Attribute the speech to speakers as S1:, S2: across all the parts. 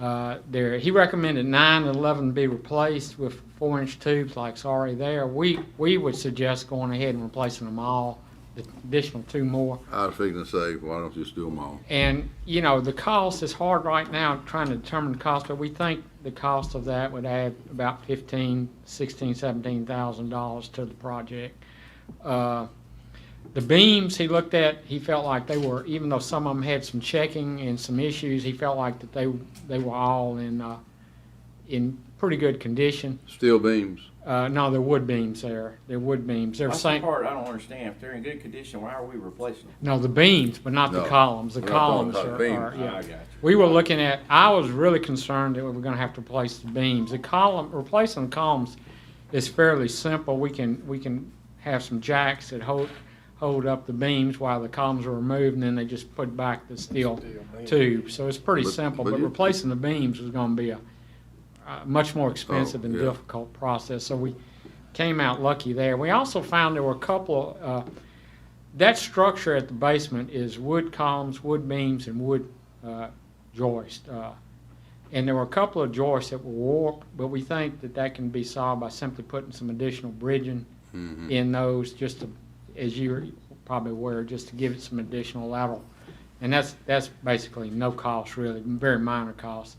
S1: uh, there. He recommended nine and eleven be replaced with four-inch tubes like it's already there. We, we would suggest going ahead and replacing them all, the additional two more.
S2: I was figuring to say, why don't you just do them all?
S1: And, you know, the cost is hard right now, trying to determine the cost, but we think the cost of that would add about fifteen, sixteen, seventeen thousand dollars to the project. Uh, The beams he looked at, he felt like they were, even though some of them had some checking and some issues, he felt like that they, they were all in, uh, in pretty good condition.
S2: Steel beams.
S1: Uh, no, there wood beams there, there wood beams, they're
S3: That's the
S1: same,
S3: part I don't understand. If they're in good condition, why are we replacing them?
S1: no, the beams, but not the
S2: No,
S1: columns, the
S2: we're not talking
S1: columns
S2: about
S1: are,
S2: beams.
S1: are- yeah.
S3: I got you.
S1: We were looking at, I was really concerned that we were gonna have to replace the beams. The column, replacing the columns is fairly simple. We can, we can have some jacks that hold, hold up the beams while the columns are removed, and then they just put back the steel tube. So it's pretty
S2: But-
S1: simple,
S2: but
S1: but
S2: you-
S1: replacing the beams was gonna be a, a uh, much more expensive and
S2: yeah.
S1: difficult process. So we came out lucky there. We also found there were a couple, uh, that structure at the basement is wood columns, wood beams, and wood uh, joist. uh, And there were a couple of joists that were warped, but we think that that can be solved by simply putting some additional bridging
S2: Mhm.
S1: in those, just to, as you're probably aware, just to give it some additional level. And that's, that's basically no cost really, very minor cost.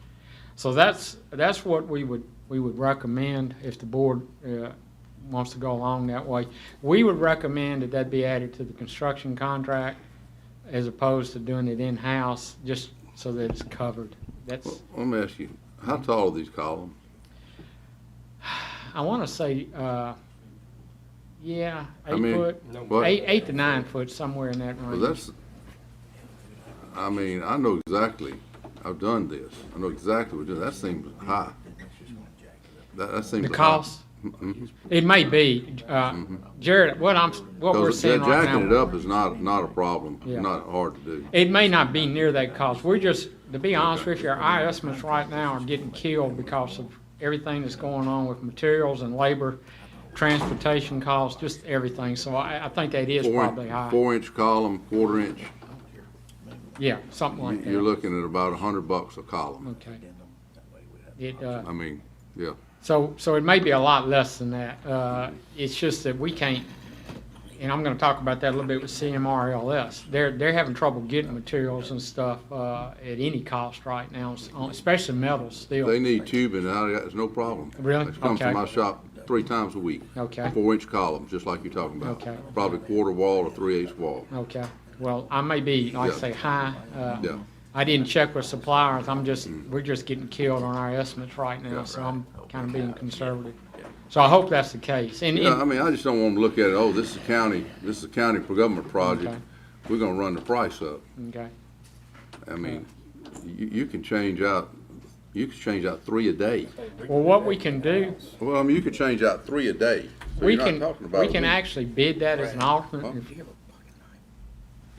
S1: So that's, that's what we would, we would recommend if the board uh, wants to go along that way. We would recommend that that be added to the construction contract as opposed to doing it in-house, just so that it's covered. That's,
S2: Well, Let me ask you, how tall are these columns?
S1: I want to say, uh, yeah,
S2: I
S1: eight
S2: mean,
S1: foot,
S2: What?
S1: eight, eight to nine foot, somewhere in that
S2: Well,
S1: range.
S2: that's, I mean, I know exactly, I've done this, I know exactly what, it is. that seems high. That, that seems.
S1: The
S2: high.
S1: cost,
S2: Mhm.
S1: it may be, uh, Jared, what I'm, what we're
S2: Mm-hmm. Because
S1: seeing
S2: ja-
S1: right
S2: jacking it
S1: now,
S2: up is not, not a problem,
S1: Yeah.
S2: not hard to do.
S1: it may not be near that cost. We're just, to be honest with you, our estimates right now are getting killed because of everything that's going on with materials and labor, transportation costs, just everything. So I, I think that is
S2: Four in-
S1: probably high.
S2: Four inch column, quarter inch,
S1: Yeah, something
S2: you-
S1: like
S2: you're
S1: that.
S2: looking at about a hundred bucks a column.
S1: Okay. It, uh,
S2: I mean, yeah.
S1: So, so it may be a lot less than that. Uh, It's just that we can't, and I'm gonna talk about that a little bit with CMRLS. They're, they're having trouble getting materials and stuff uh, at any cost right now, s- on- especially metals
S2: They
S1: still.
S2: need tubing, and I, it's no problem.
S1: Really?
S2: It comes
S1: Okay.
S2: to my shop three times a week.
S1: Okay.
S2: Four-inch columns, just like you're talking about.
S1: Okay.
S2: Probably quarter wall or three-eighths wall.
S1: Okay, well, I may be, like I
S2: Yeah.
S1: say, high. uh,
S2: Yeah.
S1: I didn't check with suppliers. I'm just, we're just getting killed on our estimates right now, so I'm kind of being conservative. So I hope that's the case. And,
S2: Yeah, I
S1: and,
S2: mean, I just don't want to look at it, oh, this is a county, this is a county government project.
S1: Okay.
S2: We're gonna run the price up.
S1: okay,
S2: I mean, you, you can change out, you can change out three a day.
S1: well, what we can do,
S2: Well, I mean, you could change out three a day. So
S1: we
S2: you're not
S1: can,
S2: talking about
S1: we
S2: a
S1: can
S2: week.
S1: actually bid that as an alternate if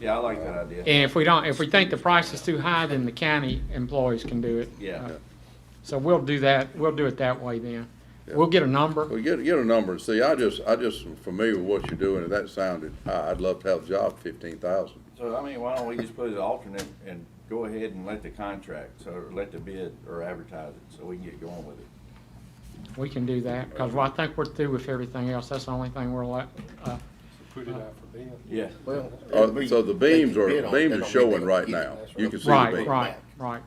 S3: Yeah, I like that idea.
S1: And if we don't, if we think the price is too high, then the county employees can do it.
S3: Yeah.
S2: Uh,
S1: So we'll do that, we'll do it that way then. We'll get a number,
S2: Well, get, get a number and see, I just, I just am familiar with what you're doing, and that sounded high. I'd love to have the job fifteen thousand.
S3: So, I mean, why don't we just put it alternate and go ahead and let the contract, so let the bid or advertise it, so we can get going with it.
S1: we can do that, because I think we're through with everything else, that's the only thing we're left. uh,
S4: put it out for bid.
S3: Yeah.
S5: Well,
S2: Uh,
S5: it'll be-
S2: so the beams are,
S5: they can bid on it. They
S2: beams are
S5: don't need
S2: showing
S5: to
S2: right
S5: get it.
S2: now. You can see the
S1: Right,
S2: beams.
S1: right, right,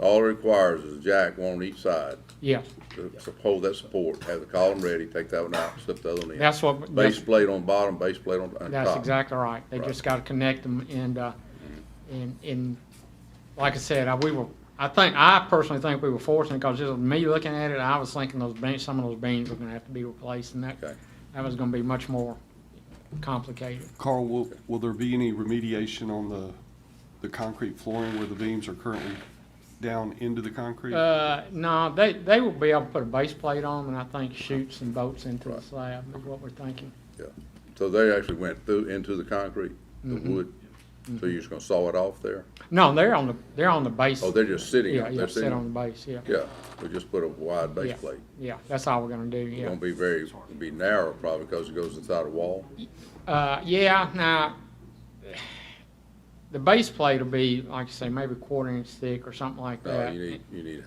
S2: All it requires is a jack, one on each side,
S1: yeah,
S2: to to hold that support, have the column ready, take that one out, slip the other one in.
S1: that's what,
S2: Base
S1: that's,
S2: plate on bottom, base plate on, on top.
S1: that's exactly right. They
S2: Right.
S1: just gotta connect them and, uh,
S2: Mm-hmm.
S1: and, and, like I said, I, we were, I think, I personally think we were fortunate, because just me looking at it, I was thinking those beams, some of those beams were gonna have to be replaced, and that,
S2: Okay.
S1: that was gonna be much more complicated.
S4: Carl, will, will there be any remediation on the, the concrete flooring where the beams are currently down into the concrete?
S1: Uh, no, they, they will be able to put a base plate on them, and I think shoot some bolts into the
S2: Right.
S1: slab is what we're thinking.
S2: Yeah. So they actually went through, into the concrete, the
S1: Mm-hmm.
S2: wood, so you're just gonna saw it off there?
S1: No, they're on the, they're on the base.
S2: Oh, they're just sitting,
S1: Yeah,
S2: on-
S1: yeah,
S2: they're
S1: sit
S2: sitting,
S1: on the
S2: on-
S1: base, yeah,
S2: yeah, we just put a wide base
S1: Yeah.
S2: plate.
S1: yeah, that's all we're gonna do,
S2: It
S1: yeah.
S2: won't be very, be narrow probably, because it goes inside a wall.
S1: Uh, yeah, now, the base plate will be, like you say, maybe a quarter inch thick or something like
S2: No,
S1: that.
S2: you need, you need